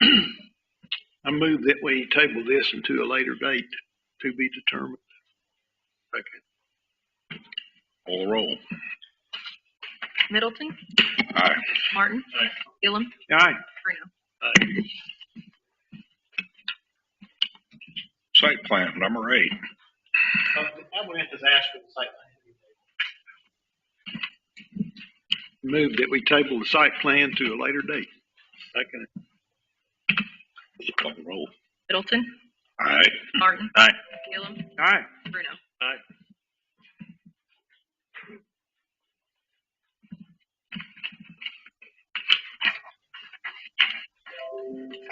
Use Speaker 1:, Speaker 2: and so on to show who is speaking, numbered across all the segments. Speaker 1: I move that we table this until a later date to be determined. Second. Call the roll.
Speaker 2: Middleton,
Speaker 1: Aye.
Speaker 2: Martin, Gillum,
Speaker 1: Aye.
Speaker 2: Bruno.
Speaker 1: Aye. Site plan, number eight.
Speaker 3: I went to ask for the site plan.
Speaker 1: Move that we table the site plan to a later date. Second. Call the roll.
Speaker 2: Middleton,
Speaker 1: Aye.
Speaker 2: Martin,
Speaker 1: Aye.
Speaker 2: Gillum,
Speaker 1: Aye.
Speaker 2: Bruno.
Speaker 1: Aye.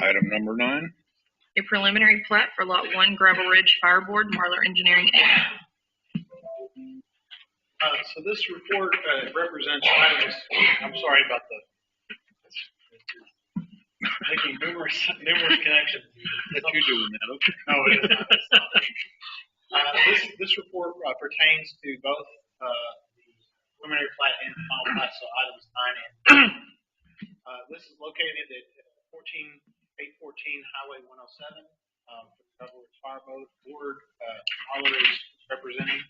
Speaker 1: Item number nine.
Speaker 2: A preliminary plat for Lot 1 Gravel Ridge Fireboard, Marler Engineering, Inc.
Speaker 3: Uh, so this report, uh, represents items, I'm sorry about the, making numerous, numerous connections.
Speaker 1: That you doing that, okay.
Speaker 3: No, it is not. It's not. Uh, this, this report uh, pertains to both, uh, the preliminary plat and the final plat, so items nine and. Uh, this is located at fourteen, eight fourteen Highway one oh seven, um, for the Double Ridge Fire Boat Board, uh, Holler is representing.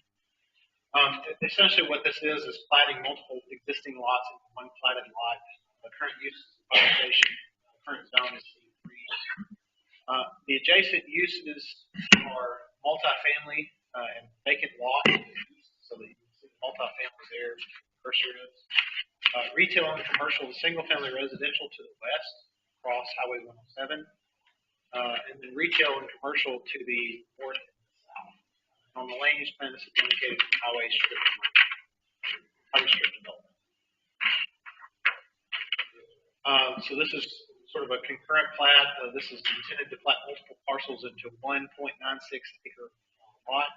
Speaker 3: Um, essentially what this is, is plating multiple existing lots into one platted lot. The current use is a fire station, the current zone is C three. Uh, the adjacent uses are multifamily, uh, and vacant lot, so the multifamily there, cursor is. Uh, retail and commercial, single-family residential to the west, across Highway one oh seven. Uh, and then retail and commercial to the north and south. On the land use plan, this is indicated as highway strip. Highway strip development. Um, so this is sort of a concurrent plat. Uh, this is intended to plat multiple parcels into one point nine six acre lot.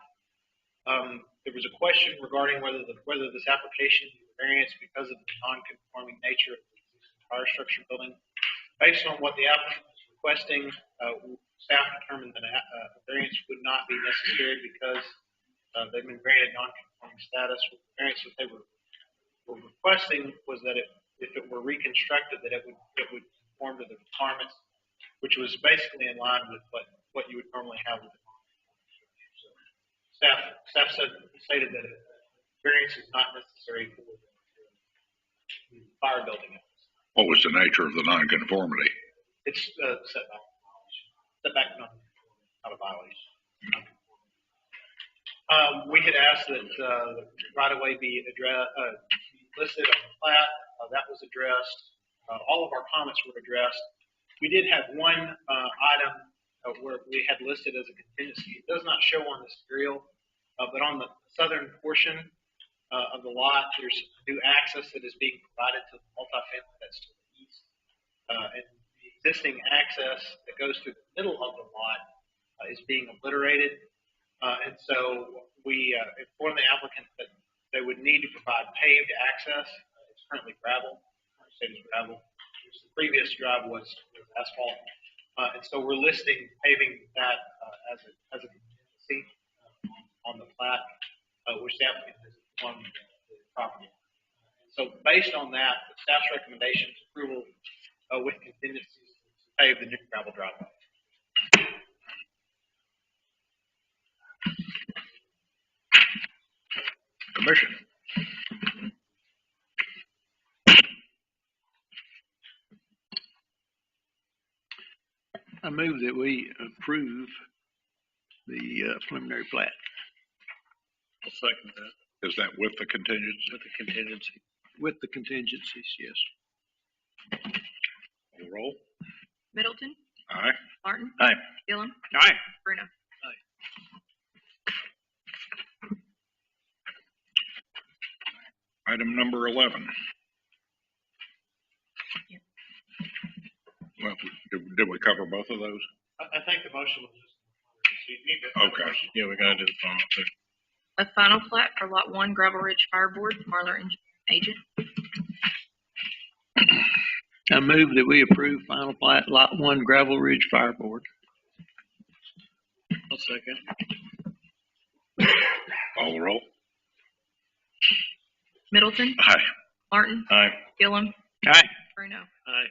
Speaker 3: Um, there was a question regarding whether the, whether this application is a variance because of the non-conforming nature of the existing fire structure building. Based on what the applicant is requesting, uh, staff determined that a, uh, a variance would not be necessary because, uh, they've been granted non-conforming status. The Variance that they were, were requesting was that it, if it were reconstructed, that it would, it would conform to the requirements, which was basically in line with what, what you would normally have with a non-conforming structure. So Staff, staff said, stated that a variance is not necessary for the fire building.
Speaker 4: what was the nature of the nonconformity?
Speaker 3: It's uh, setback, setback not, not a violation. Um, we had asked that, uh, right away be addressed, uh, listed on the plat, uh, that was addressed. Uh, all of our comments were addressed. We did have one, uh, item uh, where we had listed as a contingency. It does not show on this aerial, uh, but on the southern portion, uh, of the lot, there's new access that is being provided to the multifamily that's to the east. Uh, and the existing access that goes through the middle of the lot uh, is being obliterated. Uh, and so we uh, informed the applicant that they would need to provide paved access. Uh, It's currently gravel, current state is gravel. The previous drive was was asphalt. Uh, and so we're listing paving that uh, as a, as a contingency uh, on the plat, uh, which the applicant has informed the property. So based on that, the staff's recommendation is approval uh, with contingencies to pave the new gravel driveway.
Speaker 4: Commission,
Speaker 1: I move that we approve the uh, preliminary plat.
Speaker 5: I'll second that
Speaker 4: is that with the contingency?
Speaker 5: with the contingency.
Speaker 1: With the contingencies, yes.
Speaker 4: Call the Roll.
Speaker 2: Middleton,
Speaker 4: Aye.
Speaker 2: Martin.
Speaker 1: Aye.
Speaker 2: Gillum,
Speaker 1: Aye.
Speaker 2: Bruno.
Speaker 4: Item number eleven. Well, did, did we cover both of those?
Speaker 3: I, I think the motion was just. so you need to-
Speaker 4: Okay.
Speaker 5: Yeah, we gotta do the final two.
Speaker 2: A final plat for Lot 1 Gravel Ridge Fireboard, Marler Engineering Agent.
Speaker 1: I move that we approve final plat, lot one, Gravel Ridge Fire Board.
Speaker 5: I'll second.
Speaker 4: Call the roll.
Speaker 2: Middleton,
Speaker 4: Aye.
Speaker 2: Martin,
Speaker 5: Aye.
Speaker 2: Gillum,
Speaker 1: Aye.
Speaker 2: Bruno.
Speaker 5: Aye.